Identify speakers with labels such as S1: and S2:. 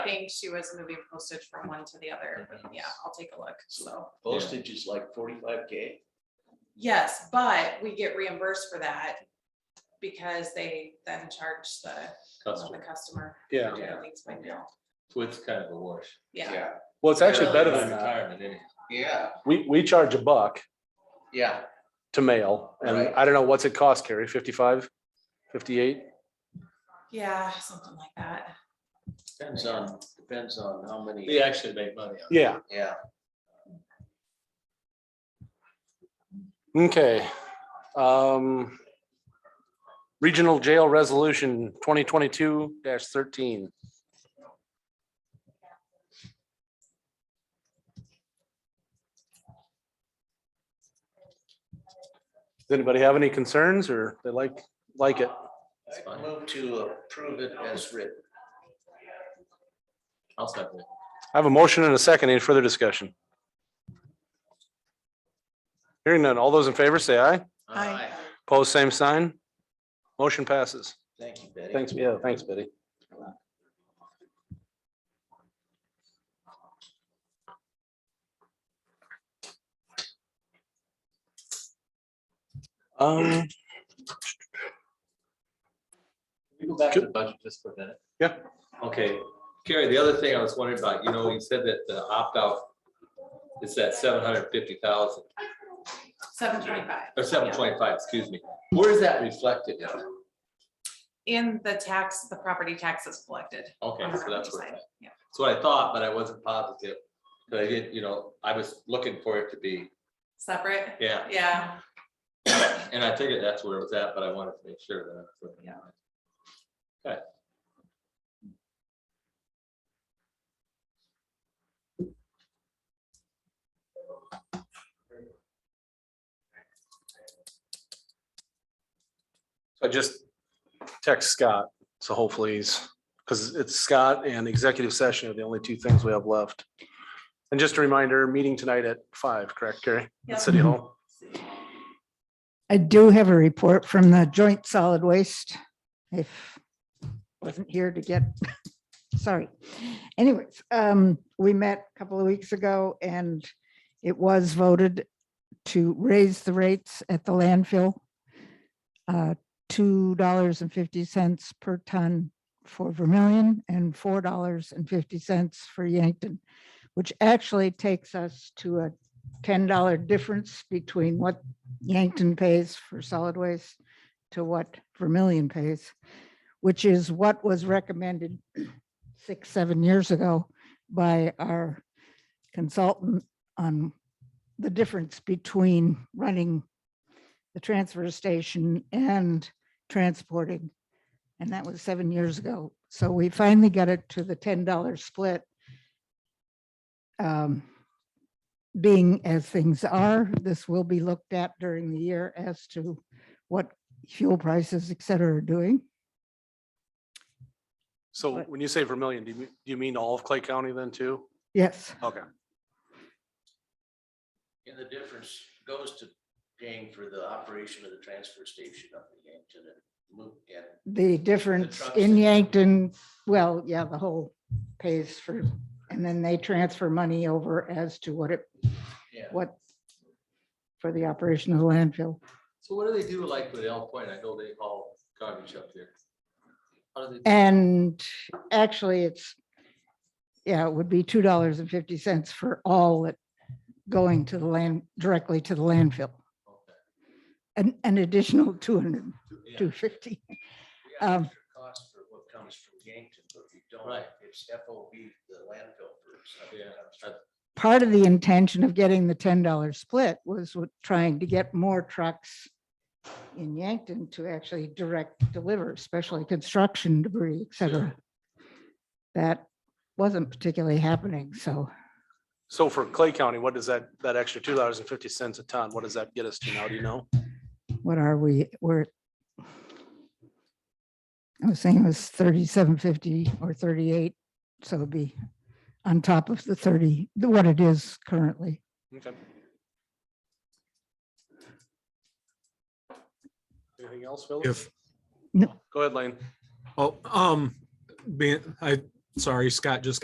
S1: think she was moving postage from one to the other, but yeah, I'll take a look, so.
S2: Postage is like forty-five K.
S1: Yes, but we get reimbursed for that because they then charge the, the
S3: customer.
S1: customer.
S4: Yeah,
S1: who Leads by mail,
S3: So it's kind of a wash.
S1: yeah,
S4: well, it's actually better than that.
S3: Retirement, anyhow.
S2: Yeah,
S4: We, we charge a buck
S2: yeah.
S4: to mail and
S2: Right.
S4: I don't know, what's it cost, Carrie? Fifty-five? Fifty-eight?
S1: yeah, something like that.
S2: Depends on, depends on how many,
S3: They actually make money on it.
S4: Yeah,
S2: yeah.
S4: okay. Um. Regional Jail Resolution twenty twenty-two thirteen. Does anybody have any concerns or they like, like it?
S2: I move to approve it as written.
S3: I'll second it.
S4: I have a motion and a second. Any further discussion? Hearing none. All those in favor say aye.
S1: Aye.
S4: Opposed, same sign. Motion passes.
S2: Thank you, Betty.
S4: Thanks, yeah, thanks, Betty. Um,
S3: Can we go back to the budget just for a minute?
S4: Yeah.
S3: Okay, Carrie, the other thing I was wondering about, you know, you said that the opt-out is that seven hundred fifty thousand,
S1: Seven twenty-five
S3: or seven twenty-five, excuse me. Where is that reflected in?
S1: in the tax, the property taxes collected.
S3: Okay,
S1: on the
S3: so that's
S1: revenue side,
S3: what,
S1: yeah.
S3: that's what I thought, but I wasn't positive. But I didn't, you know, I was looking for it to be,
S1: Separate,
S3: yeah,
S1: yeah,
S3: and I figured that's where it was at, but I wanted to make sure that. I was looking at it.
S4: I just text Scott, so hopefully he's, because it's Scott and executive session are the only two things we have left. And just a reminder, meeting tonight at five, correct, Carrie?
S1: Yep.
S4: At City Hall.
S5: I do have a report from the Joint Solid Waste. If wasn't here to get, sorry. Anyways, um, we met a couple of weeks ago and it was voted to raise the rates at the landfill. uh, Two dollars and fifty cents per ton for Vermillion and four dollars and fifty cents for Yankton, which actually takes us to a ten dollar difference between what Yankton pays for solid waste to what Vermillion pays, which is what was recommended six, seven years ago by our consultant on the difference between running the transfer station and transporting. And that was seven years ago. So we finally got it to the ten dollar split. Um, being as things are, this will be looked at during the year as to what fuel prices, et cetera, are doing.
S4: So
S5: But-
S4: when you say Vermillion, do you, do you mean all of Clay County then too?
S5: Yes,
S4: Okay.
S2: And the difference goes to paying for the operation of the transfer station up in Yankton and move and
S5: the difference
S2: trucks
S5: in
S2: that-
S5: Yankton, well, yeah, the whole pays for, and then they transfer money over as to what it,
S2: Yeah.
S5: what for the operation of the landfill.
S3: So what do they do like with El Point? I know they haul garbage up there. How do they?
S5: And actually, it's, yeah, it would be two dollars and fifty cents for all that going to the land, directly to the landfill.
S3: Okay.
S5: an, an additional two hundred,
S3: Yeah.
S5: two fifty.
S2: We have
S5: Um,
S2: extra cost for what comes from Yankton, but we don't,
S3: Right.
S2: it's FOB, the landfill for stuff
S3: Yeah,
S2: that comes from.
S5: Part of the intention of getting the ten dollar split was with trying to get more trucks in Yankton to actually direct deliver, especially construction debris, et cetera. That wasn't particularly happening, so
S4: So for Clay County, what does that, that extra two dollars and fifty cents a ton, what does that get us to now? Do you know?
S5: what are we, we're I was saying it was thirty-seven fifty or thirty-eight, so it'd be on top of the thirty, what it is currently.
S4: Okay. Anything else, Phil?
S6: If,
S4: Go ahead, Lane.
S6: oh, um, being, I Sorry, Scott just